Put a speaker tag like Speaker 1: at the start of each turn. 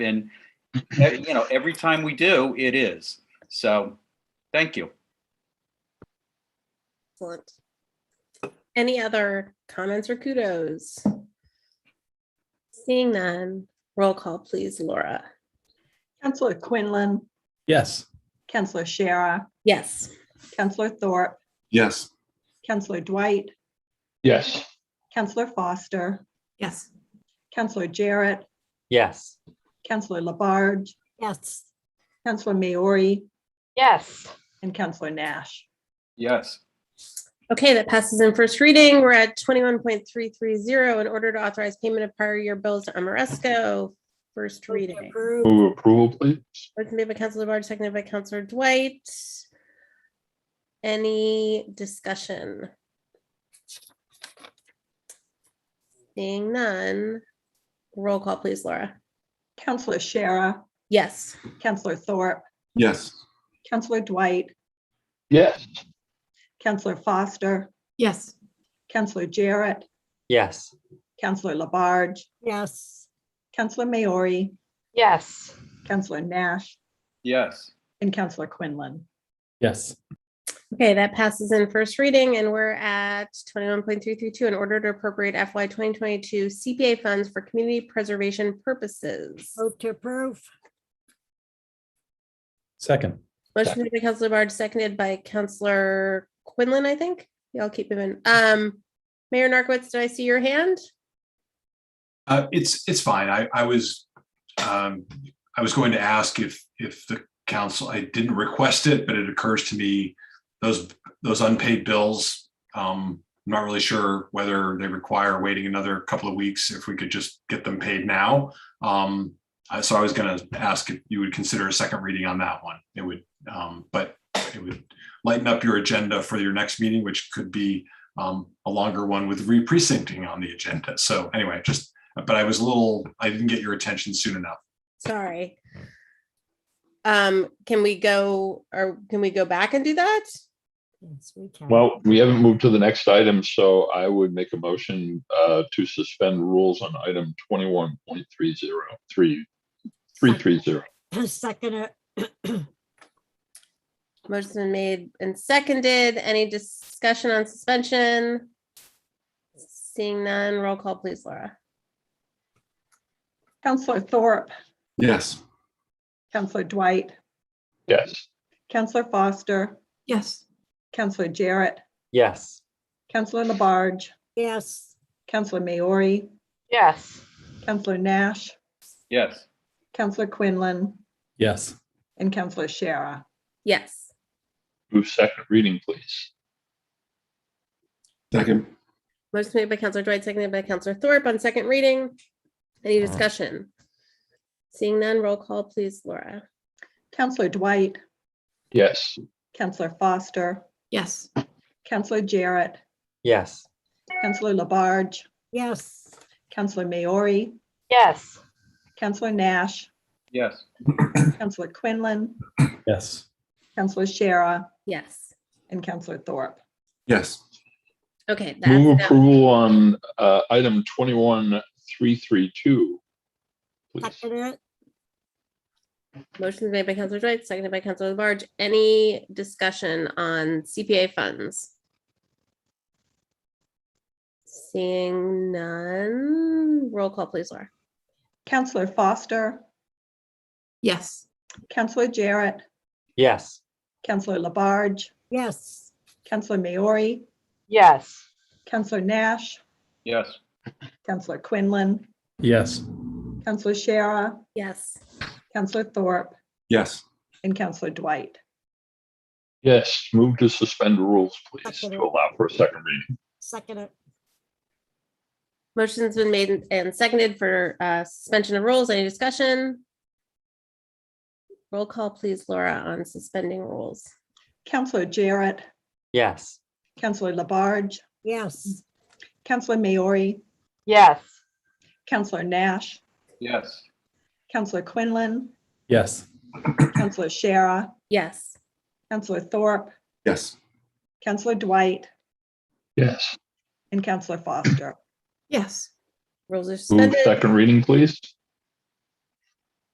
Speaker 1: And, eh, you know, every time we do, it is. So, thank you.
Speaker 2: Excellent. Any other comments or kudos? Seeing none, roll call please, Laura.
Speaker 3: Counselor Quinlan,
Speaker 4: Yes.
Speaker 3: Counselor Shara,
Speaker 2: Yes.
Speaker 3: Counselor Thorpe,
Speaker 5: Yes.
Speaker 3: Counselor Dwight,
Speaker 6: Yes.
Speaker 3: Counselor Foster,
Speaker 7: Yes.
Speaker 3: Counselor Jarrett,
Speaker 8: Yes.
Speaker 3: Counselor Labarge,
Speaker 7: Yes.
Speaker 3: Counselor Maori,
Speaker 9: Yes.
Speaker 3: and Counselor Nash.
Speaker 1: Yes.
Speaker 2: Okay, that passes in first reading. We're at twenty-one point three three zero in order to authorize payment of prior year bills to Amoresco. First reading.
Speaker 7: Approved.
Speaker 6: Move approval, please.
Speaker 2: Motion made by Counselor Labarge, seconded by Counselor Dwight. Any discussion? Seeing none, roll call please, Laura.
Speaker 3: Counselor Shara,
Speaker 2: Yes.
Speaker 3: Counselor Thorpe,
Speaker 5: Yes.
Speaker 3: Counselor Dwight,
Speaker 6: Yes.
Speaker 3: Counselor Foster,
Speaker 7: Yes.
Speaker 3: Counselor Jarrett,
Speaker 8: Yes.
Speaker 3: Counselor Labarge,
Speaker 7: Yes.
Speaker 3: Counselor Maori,
Speaker 9: Yes.
Speaker 3: Counselor Nash,
Speaker 1: Yes.
Speaker 3: and Counselor Quinlan.
Speaker 4: Yes.
Speaker 2: Okay, that passes in first reading and we're at twenty-one point three three two in order to appropriate FY twenty twenty-two CPA funds for community preservation purposes.
Speaker 7: Move to approve.
Speaker 4: Second.
Speaker 2: Motion made by Counselor Barge, seconded by Counselor Quinlan, I think. Y'all keep moving. Um, Mayor Narcoitz, did I see your hand?
Speaker 5: Uh, it's, it's fine. I, I was, um, I was going to ask if, if the council, I didn't request it, but it occurs to me, those, those unpaid bills, um, I'm not really sure whether they require waiting another couple of weeks, if we could just get them paid now. Um, I- so I was gonna ask if you would consider a second reading on that one. It would, um, but it would lighten up your agenda for your next meeting, which could be, um, a longer one with re-precincting on the agenda. So anyway, just but I was a little, I didn't get your attention soon enough.
Speaker 2: Sorry. Um, can we go, or can we go back and do that?
Speaker 7: Yes, we can.
Speaker 6: Well, we haven't moved to the next item, so I would make a motion uh, to suspend rules on item twenty-one point three zero three, three three zero.
Speaker 7: Second. it.
Speaker 2: Motion made and seconded. Any discussion on suspension? Seeing none, roll call please, Laura.
Speaker 3: Counselor Thorpe,
Speaker 5: Yes.
Speaker 3: Counselor Dwight,
Speaker 6: Yes.
Speaker 3: Counselor Foster,
Speaker 7: Yes.
Speaker 3: Counselor Jarrett,
Speaker 8: Yes.
Speaker 3: Counselor Labarge,
Speaker 7: Yes.
Speaker 3: Counselor Maori,
Speaker 9: Yes.
Speaker 3: Counselor Nash,
Speaker 1: Yes.
Speaker 3: Counselor Quinlan,
Speaker 4: Yes.
Speaker 3: and Counselor Shara.
Speaker 2: Yes.
Speaker 6: Move second reading, please.
Speaker 5: Second.
Speaker 2: Motion made by Counselor Dwight, seconded by Counselor Thorpe on second reading. Any discussion? Seeing none, roll call please, Laura.
Speaker 3: Counselor Dwight,
Speaker 6: Yes.
Speaker 3: Counselor Foster,
Speaker 7: Yes.
Speaker 3: Counselor Jarrett,
Speaker 8: Yes.
Speaker 3: Counselor Labarge,
Speaker 7: Yes.
Speaker 3: Counselor Maori,
Speaker 9: Yes.
Speaker 3: Counselor Nash,
Speaker 1: Yes.
Speaker 3: Counselor Quinlan,
Speaker 4: Yes.
Speaker 3: Counselor Shara,
Speaker 2: Yes.
Speaker 3: and Counselor Thorpe.
Speaker 5: Yes.
Speaker 2: Okay. that's
Speaker 6: Move
Speaker 2: that.
Speaker 6: approval on uh, item twenty-one three three two. Please.
Speaker 7: Second. it.
Speaker 2: Motion made by Counselor Dwight, seconded by Counselor Labarge. Any discussion on CPA funds? Seeing none, roll call please, Laura.
Speaker 3: Counselor Foster,
Speaker 7: Yes.
Speaker 3: Counselor Jarrett,
Speaker 8: Yes.
Speaker 3: Counselor Labarge,
Speaker 7: Yes.
Speaker 3: Counselor Maori,
Speaker 9: Yes.
Speaker 3: Counselor Nash,
Speaker 1: Yes.
Speaker 3: Counselor Quinlan,
Speaker 4: Yes.
Speaker 3: Counselor Shara,
Speaker 2: Yes.
Speaker 3: Counselor Thorpe,
Speaker 5: Yes.
Speaker 3: and Counselor Dwight.
Speaker 6: Yes, move to suspend rules, please,
Speaker 7: Second.
Speaker 6: to allow for a second reading.
Speaker 7: Second. it.
Speaker 2: Motion's been made and seconded for uh, suspension of rules. Any discussion? Roll call, please, Laura, on suspending rules.
Speaker 3: Counselor Jarrett,
Speaker 8: Yes.
Speaker 3: Counselor Labarge,
Speaker 7: Yes.
Speaker 3: Counselor Maori,
Speaker 9: Yes.
Speaker 3: Counselor Nash,
Speaker 1: Yes.
Speaker 3: Counselor Quinlan,
Speaker 4: Yes.
Speaker 3: Counselor Shara,
Speaker 2: Yes.
Speaker 3: Counselor Thorpe,
Speaker 5: Yes.
Speaker 3: Counselor Dwight,
Speaker 6: Yes,
Speaker 3: and Counselor Foster.
Speaker 7: Yes.
Speaker 2: Rules are
Speaker 6: move
Speaker 2: suspended.
Speaker 6: second reading, please.